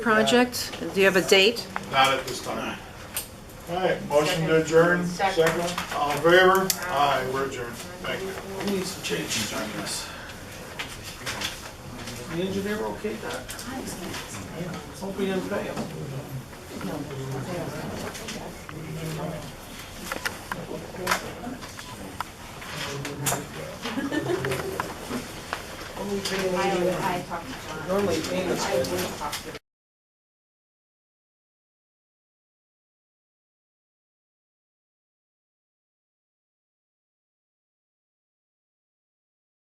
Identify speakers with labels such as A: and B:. A: project? Do you have a date?
B: Not at this time. All right, motion to adjourn,
C: Second.
B: second, all in favor? Aye, we're adjourned, thank you.
D: We need some changes on this. The engineer okay that? Hope we didn't pay him.
C: I, I talked to John.
D: Normally payments,
C: I would talk to